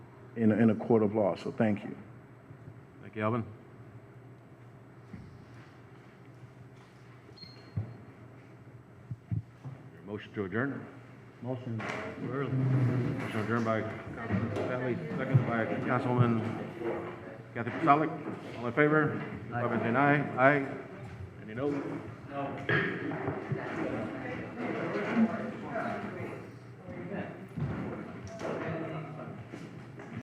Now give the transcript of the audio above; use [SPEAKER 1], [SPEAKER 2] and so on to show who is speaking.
[SPEAKER 1] in, in a court of law. So thank you.
[SPEAKER 2] Thank you, Alvin. Your Motion to adjourn.
[SPEAKER 3] Motion.
[SPEAKER 2] Early. Motion adjourned by Councilman Bailey, seconded by Councilwoman Kathy Pasalic. All in favor? Five and ten, aye. Aye. Any no? No.